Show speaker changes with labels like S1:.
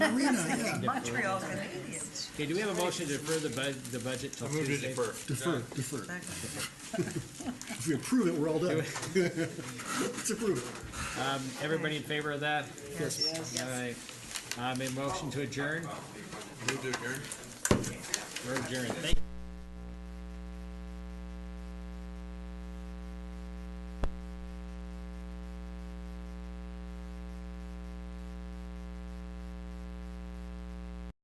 S1: Arena, yeah.
S2: Montreal's got Indians.
S3: Okay, do we have a motion to defer the bud, the budget till
S4: I move to
S3: Tuesday?
S4: defer.
S1: Defer, defer. If we approve it, we're all done. Let's approve it.
S3: Everybody in favor of that?
S2: Yes.
S3: All right. Um, a motion to adjourn,
S4: Move to adjourn.
S3: we're adjourned. Thank you.